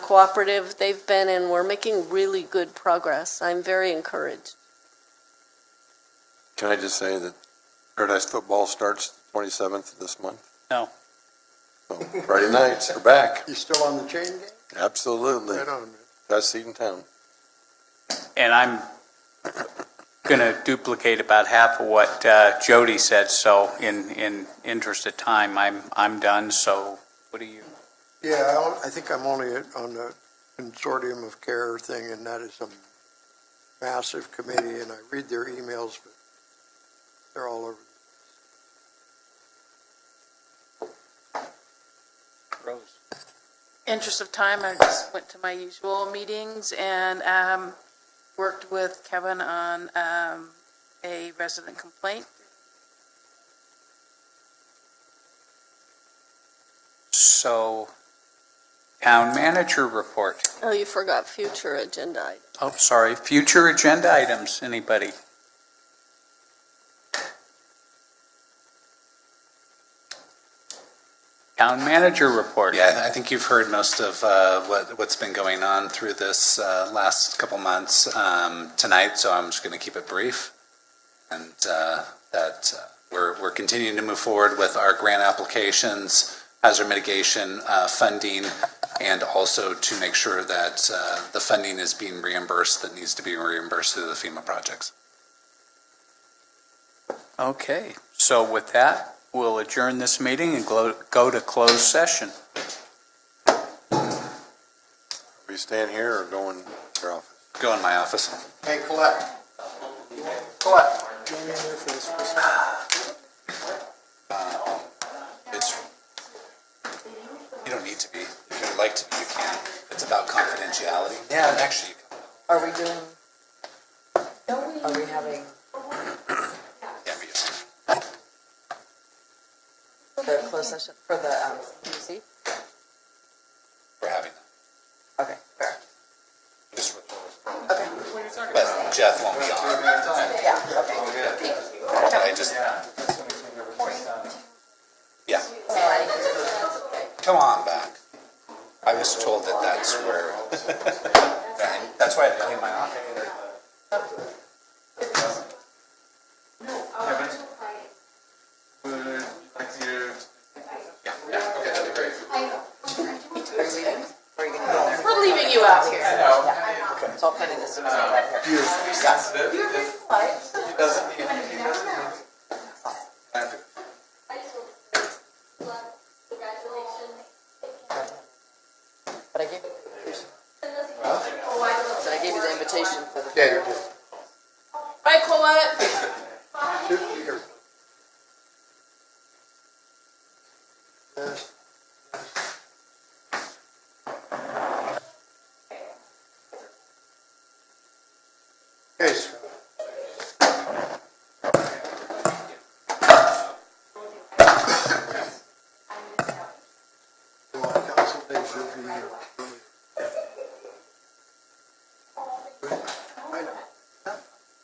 cooperative they've been, and we're making really good progress. I'm very encouraged. Can I just say that Paradise Football starts twenty-seventh this month? No. So Friday nights, we're back. You still on the chain gang? Absolutely. Right on, man. Best seat in town. And I'm going to duplicate about half of what uh, Jody said, so in, in interest of time, I'm, I'm done, so what do you? Yeah, I don't- I think I'm only at- on the consortium of care thing, and that is a massive committee, and I read their emails, but they're all over. Rose. interest of time, I just went to my usual meetings and um, worked with Kevin on um, a resident complaint. So, town manager report. Oh, you forgot future agenda items. Oh, sorry, future agenda items, anybody? Town manager report. Yeah, I think you've heard most of uh, what, what's been going on through this uh, last couple months um, tonight, so I'm just going to keep it brief. And uh, that uh, we're, we're continuing to move forward with our grant applications, hazard mitigation uh, funding, and also to make sure that uh, the funding is being reimbursed that needs to be reimbursed through the FEMA projects. Okay, so with that, we'll adjourn this meeting and go, go to closed session. Are you staying here or going to your office? Go in my office. Hey, Colette. Colette. Join me here for this Uh, It's, you don't need to be. If you'd like to be, you can. It's about confidentiality. Yeah. Actually, Are we doing? Are we having, you can be. the closed session for the, um, PUC? We're having Okay, fair. just. Okay. But Jeff won't be on. Yeah, okay. But I just. Yeah. Come on back. I was told that that's where. That's why I clean my office. Kevin? Would like you Are you gonna go there? We're leaving you out here. Yeah. It's all kind of this. Beautiful. But I gave, but I gave you the invitation for the. Yeah, you did. Bye, Colette. Shoot, here. Yes. Okay, Scott. Well, council days will be